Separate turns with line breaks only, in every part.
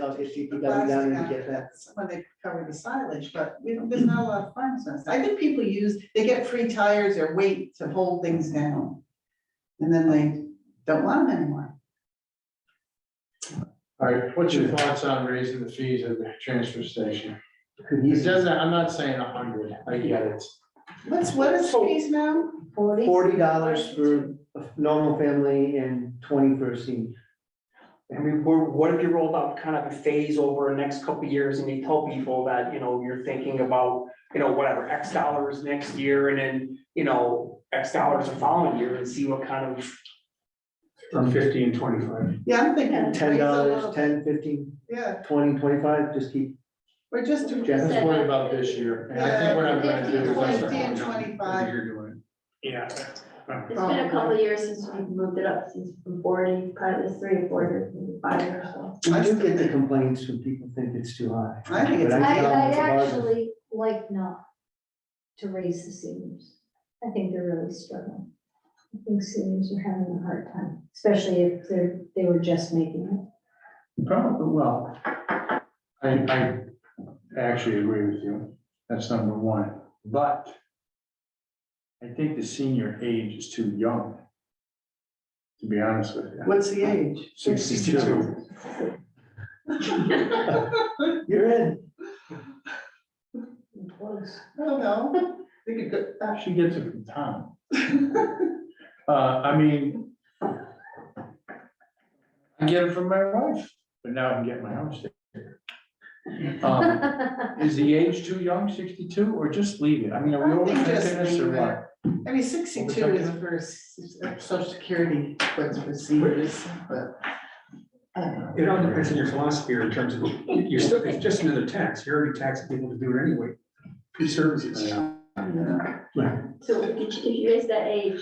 I'll get CPW down and get that.
When they cover the silage, but we don't, there's not a lot of farms on this. I think people use, they get free tires or weight to hold things down. And then they don't want them anymore.
All right, what's your thoughts on raising the fees at the transfer station?
Could
It
use
doesn't, I'm not saying a hundred, I get it.
What's, what is fees now?
forty dollars for a normal family and twenty for a senior.
I mean, we're, what if you rolled out kind of a phase over the next couple of years and you tell people that, you know, you're thinking about, you know, whatever, X dollars next year and then, you know, X dollars the following year and see what kind of,
From fifty and twenty-five.
Yeah, I'm thinking.
Um, Ten
raise a
dollars,
little-
ten, fifteen,
Yeah,
twenty, twenty-five, just keep.
we're just.
Jeff.
Let's worry about this year, and I think what I'm gonna do is. let's-
50 and 25.
You're doing.
yeah.
It's been
Um,
a couple of years since we've moved it up, since from forty, probably it's three or four years, maybe five years or so.
I do get the complaints when people think it's too high.
I think it's-
But
I,
tell them
I
it's a bargain.
actually like not to raise the seniors. I think they're really struggling. I think seniors are having a hard time, especially if they're, they were just making it.
Probably, well, I, I actually agree with you, that's number one, but I think the senior age is too young, to be honest with you.
What's the age?
Sixty-two.
You're in.
Close.
I don't know. They could go, uh,
She gets it from Tom. Uh, I mean. I get it from my wife, but now I can get my own sticker. Um, Is the age too young, sixty-two, or just leave it? I mean, are we
I think
overthinking
just
this or
leave
what?
I mean, sixty-two is for s- s- social security, but for seniors, but. I don't know.
It all depends on your philosophy in terms of, you're still, it's just another tax, you're already taxing people to do it anyway. Free services.
I don't know.
So if you- if you raise that age,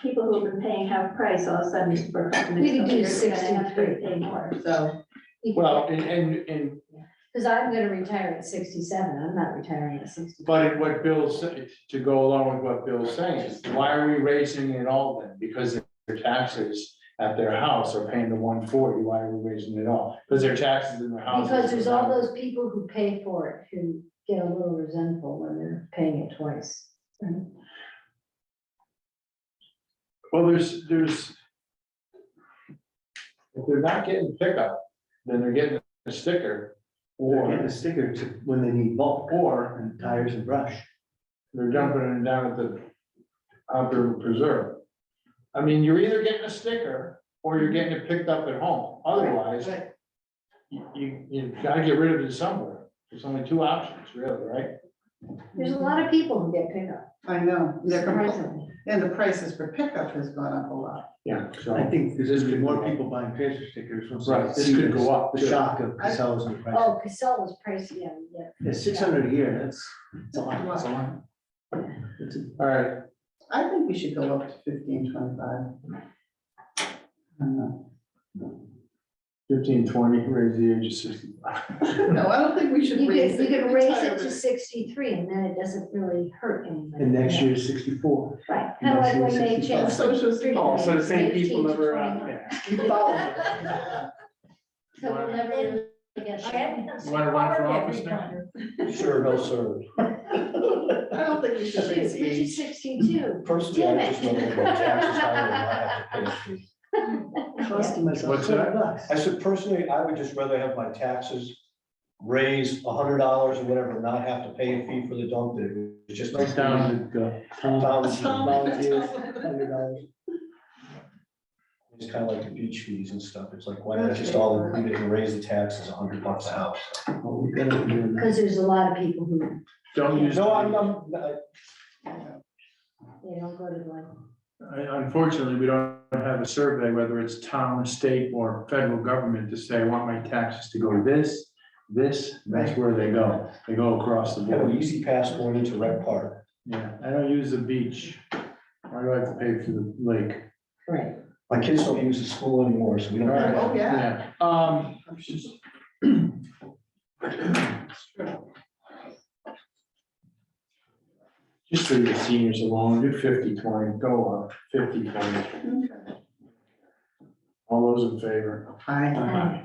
people who've been paying half price all of a sudden for a couple
We could
minutes,
do
they're gonna have to
63.
pay more.
So,
Well, and, and, and,
Because I'm gonna retire at sixty-seven, I'm not retiring at sixty.
but what Bill's, sa- to go along with what Bill's saying, is why are we raising it all then? Because their taxes at their house are paying the one forty, why are we raising it all? Because their taxes in their house.
Because there's all those people who pay for it who get a little resentful when they're paying it twice.
Well, there's, there's. If they're not getting pickup, then they're getting a sticker,
They're getting
or
a sticker to- when they need bulk or and tires and brush.
they're dumping it down at the outdoor preserve. I mean, you're either getting a sticker or you're getting it picked up at home, otherwise,
but
you, you, you gotta get rid of it somewhere. There's only two options, really, right?
There's a lot of people who get pickup.
I know, they're compl-
surprisingly.
and the prices for pickup has gone up a lot.
Yeah.
I
So,
think there's gonna be
could go
more
up.
people buying transfer stickers. once
Right,
they
this
see
could go up,
The
too.
shock of Casella's and price.
Oh, Casella's pricey, yeah, yeah.
It's six hundred a year, that's, that's a lot.
Well,
It's a-
all right,
I think we should go up to fifteen, twenty-five. I don't know.
fifteen, twenty, raise the age of sixty-five.
No, I don't think we should
You
raise
could,
it.
you could raise it to
entirely.
sixty-three and then it doesn't really hurt anybody.
And next
Yeah,
year is sixty-four.
Right, kind of like when they
next year
changed.
Social security.
Oh, so the same people
18 to
never, uh,
21.
yeah.
Keep following.
So we'll never really get that.
You wanna run for office now?
Sure, no, sir.
I don't think we should raise it.
Shoot, which is sixty-two.
Personally, I just know
Damn it.
about taxes higher than I have to pay.
Costing myself
What's that?
twenty bucks.
I said personally, I would just rather have my taxes raised a hundred dollars or whatever, not have to pay a fee for the dump that it's just.
It's down to go.
Down.
Volunteers,
Oh,
$100.
It's kind of like the beach fees and stuff. It's like, why not just all include it and raise the taxes a hundred bucks a house?
Oh,
Well, we're gonna do that.
Because there's a lot of people who,
Don't use.
No, I'm, I'm,
they don't go to like,
Unfortunately, we don't have a survey, whether it's town, state, or federal government to say, I want my taxes to go to this, this, that's where they go. They go across the
Have an
board.
easy pass going into Red Park.
Yeah, I don't use the beach. Why do I have to pay for the lake?
right.
My kids don't use the school anymore, so we don't.
Right.
Oh, yeah.
Um. Just leave the seniors alone, do fifty twenty, go up fifty twenty,
Okay.
all those in favor?
I,
Aye.